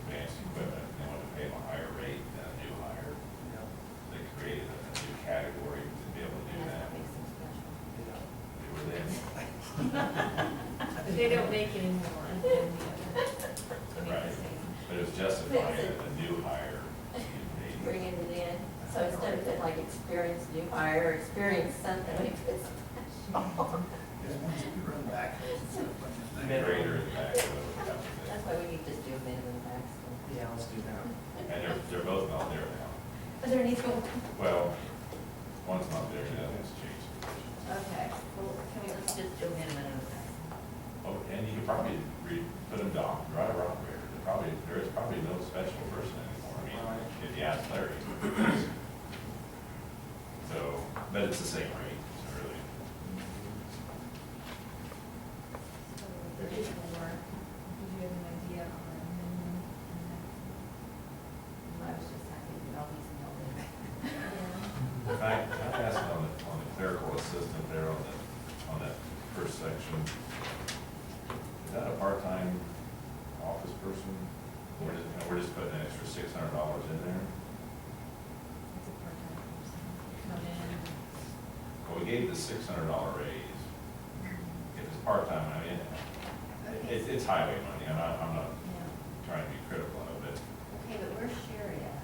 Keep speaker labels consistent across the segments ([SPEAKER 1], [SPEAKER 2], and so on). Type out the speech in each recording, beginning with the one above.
[SPEAKER 1] uh,
[SPEAKER 2] not vacating one and the other. I mean,
[SPEAKER 1] Right. But it's justifying that the new hire should be
[SPEAKER 3] bring it in, so instead of it like experience new hire, experience something, like this.
[SPEAKER 4] once you run back, it's a bunch of things.
[SPEAKER 1] greater than that. so it comes
[SPEAKER 3] That's why we need to do minimum maximum.
[SPEAKER 5] Yeah, let's do that.
[SPEAKER 1] in. And they're, they're both not there now.
[SPEAKER 3] Is there any school?
[SPEAKER 1] Well, one's not there, the other one's changed.
[SPEAKER 3] Okay, well, can we, let's just do minimum and maximum.
[SPEAKER 1] Oh, and you could probably re, put them down, right around there. There Probably, there is probably no special person anymore, I mean, if you ask Larry. So, but it's the same rate, so really.
[SPEAKER 2] So They're just gonna work. Did you have an idea on a minimum?
[SPEAKER 3] I was just happy that all these know that.
[SPEAKER 2] and that?
[SPEAKER 1] In fact, I asked on the, on the clerical assistant there on the, on that first section. Is that a part-time office person? We're just, and we're just putting an extra six hundred dollars in there?
[SPEAKER 2] Yeah, it's a part-time person. Come in.
[SPEAKER 1] Well, we gave the six hundred dollar raise. If it's part-time, I mean, it- it's, it's highway money, and I, I'm not
[SPEAKER 3] Yeah.
[SPEAKER 1] trying to be critical of it.
[SPEAKER 3] Okay, but where's Sherry at?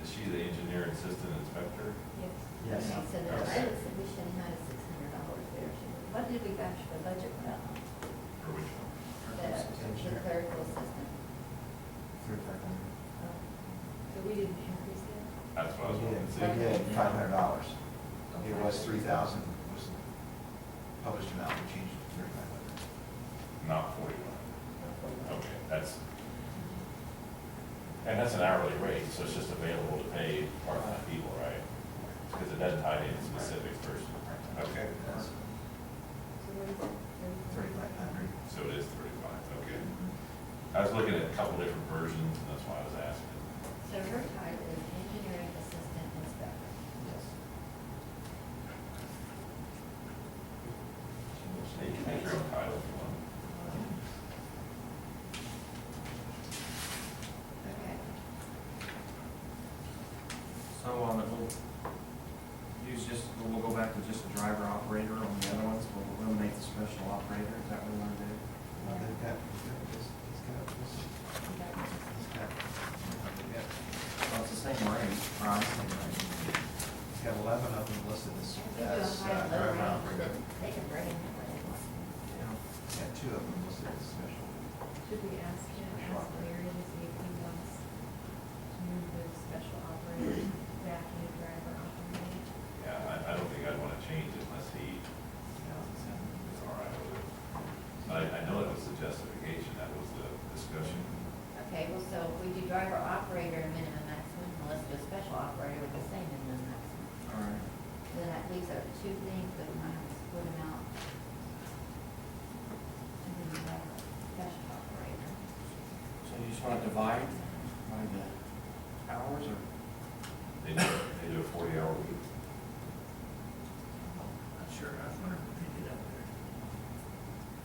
[SPEAKER 1] Is she the engineer assistant inspector?
[SPEAKER 2] Yes.
[SPEAKER 5] Yes.
[SPEAKER 3] Okay, So the edit submission had six hundred dollars there. She- What did we actually the budget put out?
[SPEAKER 1] Or which one?
[SPEAKER 3] The the clerical assistant.
[SPEAKER 2] So we didn't increase that?
[SPEAKER 1] That's what I was wanting to see.
[SPEAKER 3] Yeah, yeah.
[SPEAKER 4] Five hundred dollars. It was three thousand, was the published amount, we changed it to thirty-five hundred.
[SPEAKER 1] Not forty-one. Okay, that's, and that's an hourly rate, so it's just available to pay part-time people, right? Because it doesn't tie in specific person. Okay.
[SPEAKER 4] That's
[SPEAKER 2] So what is it?
[SPEAKER 4] thirty-five hundred.
[SPEAKER 1] So it is thirty-five, okay. I was looking at a couple different versions, and that's why I was asking.
[SPEAKER 3] So her title is engineering assistant inspector.
[SPEAKER 4] Yes.
[SPEAKER 1] So you can make your own title if you want.
[SPEAKER 3] Okay.
[SPEAKER 5] So, um, if we'll use just, we'll go back to just a driver operator on the other ones, we'll eliminate the special operator, is that what we want to do?
[SPEAKER 4] Well, they've got, he's got this, he's got this, he's got, they've got-
[SPEAKER 5] Well, it's the same rate, right?
[SPEAKER 4] he's got eleven of them listed as, as, uh,
[SPEAKER 3] Lower
[SPEAKER 4] driver
[SPEAKER 3] range,
[SPEAKER 4] operator.
[SPEAKER 3] They can bring in whatever they want.
[SPEAKER 5] Yeah.
[SPEAKER 4] He's got two of them listed as special.
[SPEAKER 2] Should we ask him, ask Larry to see if he wants to move the special operator back into driver operator?
[SPEAKER 1] Yeah, I, I don't think I'd want to change it unless he is all right with it. But I, I know that was the justification, that was the discussion.
[SPEAKER 3] Okay, well, so if we do driver operator and minimum maximum, and let's do a special operator with the same minimum maximum.
[SPEAKER 5] All right.
[SPEAKER 3] Then that leaves our two things that we might have to split them out. And then we have a special operator.
[SPEAKER 5] So you just want to divide by the hours or?
[SPEAKER 1] They do, they do a forty-hour week.
[SPEAKER 5] Not sure, I was wondering what they did up there.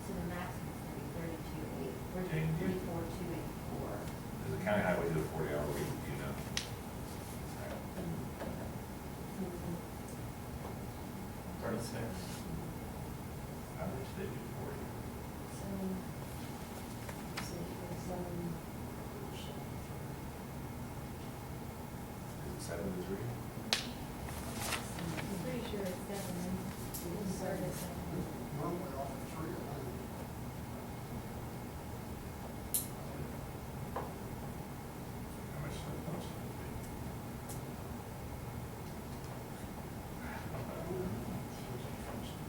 [SPEAKER 3] So the maximum's gonna be thirty-two eight,
[SPEAKER 1] Okay.
[SPEAKER 3] thirty-four two eighty-four.
[SPEAKER 1] Does the county highway do a forty-hour week, do you know?
[SPEAKER 5] Thirty-six.
[SPEAKER 1] How much they do forty? Is it seven to three?
[SPEAKER 2] I'm pretty sure it's seven, service.
[SPEAKER 1] How much, how much do they do?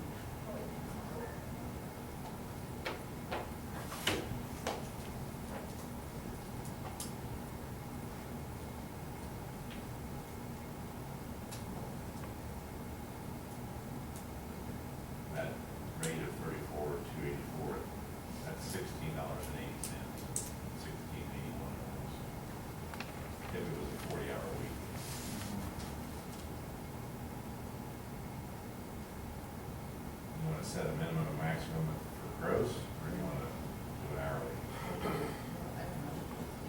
[SPEAKER 1] That rate of thirty-four, two eighty-four, that's sixteen dollars and eighty cents, sixteen eighty-one dollars. If it was a forty-hour week.
[SPEAKER 5] Mm-hmm.
[SPEAKER 1] You wanna set a minimum and maximum for gross?